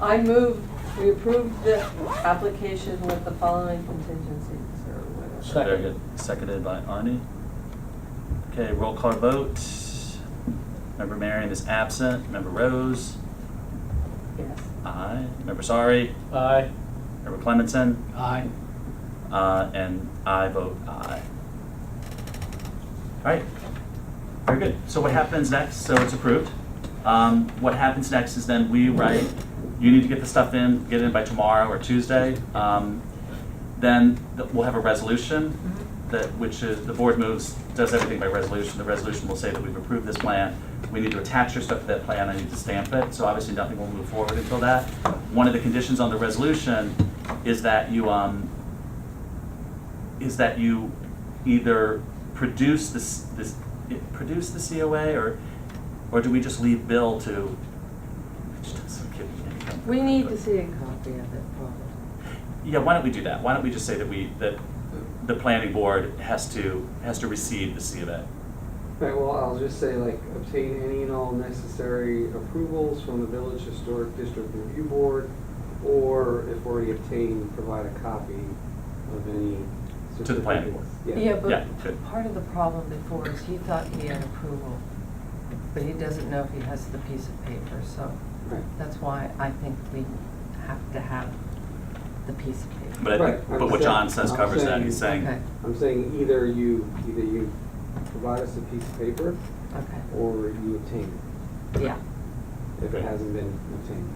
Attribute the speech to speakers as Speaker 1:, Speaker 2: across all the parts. Speaker 1: I move, we approve the application with the following contingencies or whatever.
Speaker 2: Second.
Speaker 3: Very good. Seconded by Arnie. Okay, roll call vote. Member Marion is absent. Member Rose?
Speaker 1: Yes.
Speaker 3: Aye. Member Sari?
Speaker 2: Aye.
Speaker 3: Member Clementson?
Speaker 2: Aye.
Speaker 3: Uh, and I vote aye. Alright, very good. So what happens next, so it's approved. Um, what happens next is then we write, you need to get the stuff in, get it in by tomorrow or Tuesday. Um, then th- we'll have a resolution
Speaker 1: Mm-hmm.
Speaker 3: that, which is, the board moves, does everything by resolution. The resolution will say that we've approved this plan. We need to attach your stuff to that plan, I need to stamp it, so obviously nothing will move forward until that. One of the conditions on the resolution is that you, um, is that you either produce this, this, it- produce the COA, or, or do we just leave Bill to, which doesn't give me anything.
Speaker 1: We need to see a copy of it, probably.
Speaker 3: Yeah, why don't we do that? Why don't we just say that we, that the planning board has to, has to receive the COA?
Speaker 4: Right, well, I'll just say like obtain any and all necessary approvals from the village historic district review board, or if already obtained, provide a copy of any.
Speaker 3: To the planning board.
Speaker 4: certificates.
Speaker 5: Yeah,
Speaker 3: Yeah,
Speaker 5: but
Speaker 3: good.
Speaker 5: part of the problem before is he thought he had approval, but he doesn't know if he has the piece of paper, so
Speaker 4: Right.
Speaker 5: that's why I think we have to have the piece of paper.
Speaker 3: But I think,
Speaker 4: Right, I'm
Speaker 3: but what John says
Speaker 4: saying-
Speaker 3: covers that, he's
Speaker 4: I'm
Speaker 3: saying,
Speaker 5: Okay,
Speaker 4: I'm saying either you, either you provide us a piece of paper,
Speaker 5: okay,
Speaker 4: or you obtain
Speaker 5: yeah.
Speaker 4: it, if
Speaker 3: Okay.
Speaker 4: it hasn't been obtained.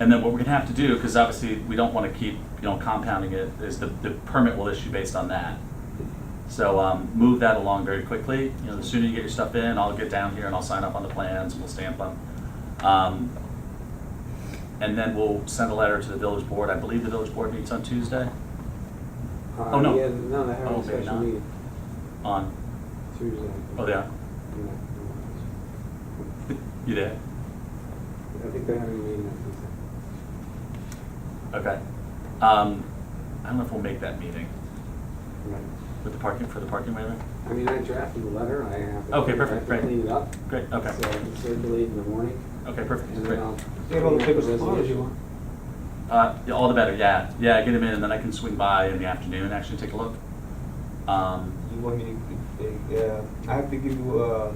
Speaker 3: And then what we're gonna have to do, because obviously we don't wanna keep, you know, compounding it, is the, the permit will issue based on that. So, um, move that along very quickly, you know, the sooner you get your stuff in, I'll get down here and I'll sign up on the plans, and we'll stamp them. Um, And then we'll send a letter to the village board, I believe the village board meets on Tuesday,
Speaker 4: Uh,
Speaker 3: Oh, no.
Speaker 4: Yeah, no, they
Speaker 3: Oh,
Speaker 4: have a
Speaker 3: maybe
Speaker 4: special
Speaker 3: not.
Speaker 4: meeting
Speaker 3: on,
Speaker 4: Tuesday.
Speaker 3: oh, they are, you there?
Speaker 4: I think they're having a meeting on Tuesday.
Speaker 3: Okay. Um, I don't know if we'll make that meeting
Speaker 4: Right.
Speaker 3: with the parking, for the parking waiver?
Speaker 4: I mean, I drafted the letter, I have to.
Speaker 3: Okay,
Speaker 4: I
Speaker 3: perfect,
Speaker 4: have to
Speaker 3: great.
Speaker 4: clean it up.
Speaker 3: Great,
Speaker 4: So
Speaker 3: okay,
Speaker 4: I can circulate in the morning,
Speaker 3: okay, perfect,
Speaker 4: and then
Speaker 3: great.
Speaker 4: I'll.
Speaker 2: You have all the
Speaker 4: clean up
Speaker 2: papers tomorrow if you want.
Speaker 3: Uh, yeah, all the better, yeah. Yeah, get them in, and then I can swing by in the afternoon and actually take a look. Um,
Speaker 6: You want me to, yeah, I have to give you, uh,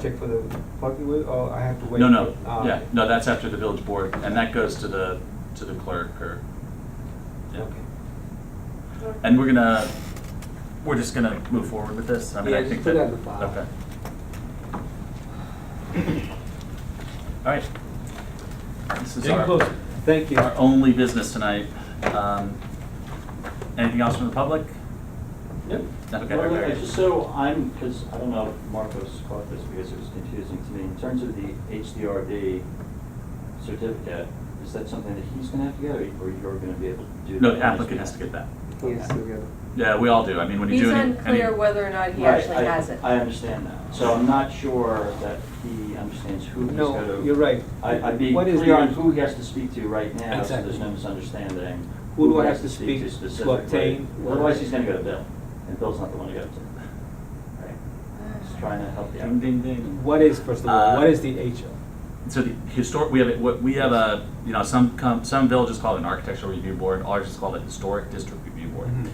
Speaker 6: check for the parking with, or I have to wait?
Speaker 3: no, no,
Speaker 6: for- ah,
Speaker 3: yeah, no, that's after the village board, and that goes to the, to the clerk or. yeah.
Speaker 6: Okay.
Speaker 3: And we're gonna, we're just gonna move forward with this, I mean,
Speaker 4: Yeah,
Speaker 3: I
Speaker 4: just
Speaker 3: think
Speaker 4: put
Speaker 3: that.
Speaker 4: that in the file.
Speaker 3: Okay. All right. This is
Speaker 2: Getting
Speaker 3: our.
Speaker 2: closer.
Speaker 4: Thank you.
Speaker 3: Our only business tonight. Um, Anything else from the public?
Speaker 7: Yep.
Speaker 3: Okay,
Speaker 7: Well,
Speaker 3: very good.
Speaker 7: just So I'm, because I don't know if Marcos caught this because it was confusing to me. In terms of the HDRD certificate, is that something that he's going to have to get or or you're going to be able to do? that
Speaker 3: No, the
Speaker 7: on his
Speaker 3: applicant has to
Speaker 7: behalf?
Speaker 3: get that.
Speaker 4: Yes, we have.
Speaker 3: Yeah, we all do. I mean, when you
Speaker 1: He's
Speaker 3: do any. any-
Speaker 1: unclear whether or not he
Speaker 7: Right,
Speaker 1: actually
Speaker 7: I-
Speaker 1: has it.
Speaker 7: I understand that. So I'm not sure that he understands who he's going to.
Speaker 6: No, you're right.
Speaker 7: I- I'd be
Speaker 6: What is
Speaker 7: clear
Speaker 6: the-
Speaker 7: on who he has to speak to right now, so
Speaker 6: Exactly.
Speaker 7: there's no misunderstanding.
Speaker 6: Who do I
Speaker 7: he
Speaker 6: have
Speaker 7: has
Speaker 6: to speak to
Speaker 7: specifically.
Speaker 6: obtain what-
Speaker 7: Otherwise, he's gonna go to Bill, and Bill's not the one to go to. Right? Just trying to help you
Speaker 3: Ding,
Speaker 7: out.
Speaker 3: ding, ding.
Speaker 6: What is, first of all,
Speaker 3: Uh,
Speaker 6: what is the HO?
Speaker 3: So the historic, we have, it- what- we have a, you know, some, com- some villages call it an architectural review board, ours is called a historic district review board.
Speaker 6: Mhm.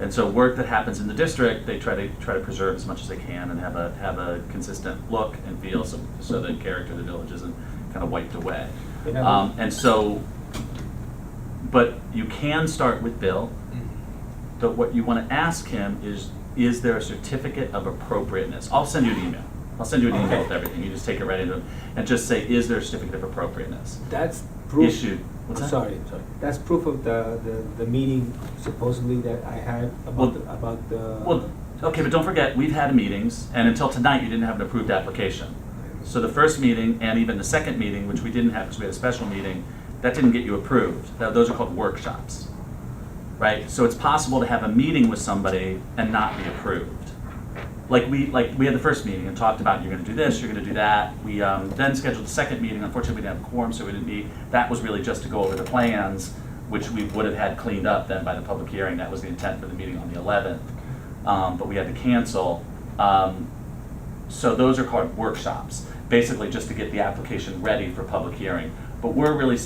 Speaker 3: And so work that happens in the district, they try to, try to preserve as much as they can and have a, have a consistent look and feel so, so the character of the village isn't kind of wiped away.
Speaker 6: You know-
Speaker 3: Um, and so, but you can start with Bill, but what you want to ask him is, is there a certificate of appropriateness? I'll send you an email. I'll send you an email with everything. You just take it right into him and just say, is there a certificate of appropriateness?
Speaker 6: That's proof.
Speaker 3: Issued. What's that?
Speaker 6: Sorry, sorry. That's proof of the, the, the meeting supposedly that I had
Speaker 3: Well,
Speaker 6: about, the- about the.
Speaker 3: Well, okay, but don't forget, we've had meetings, and until tonight, you didn't have an approved application. So the first meeting, and even the second meeting, which we didn't have because we had a special meeting, that didn't get you approved. Now, Those are called workshops, right? So it's possible to have a meeting with somebody and not be approved. Like we, like, we had the first meeting and talked about, you're gonna do this, you're gonna do that. We um, then scheduled the second meeting, unfortunately, we didn't have a quorum, so we didn't meet. That was really just to go over the plans, which we would have had cleaned up then by the public hearing. That was the intent for the meeting on the 11th, Um, but we had to cancel. Um, so those are called workshops, basically just to get the application ready for public hearing. But we're really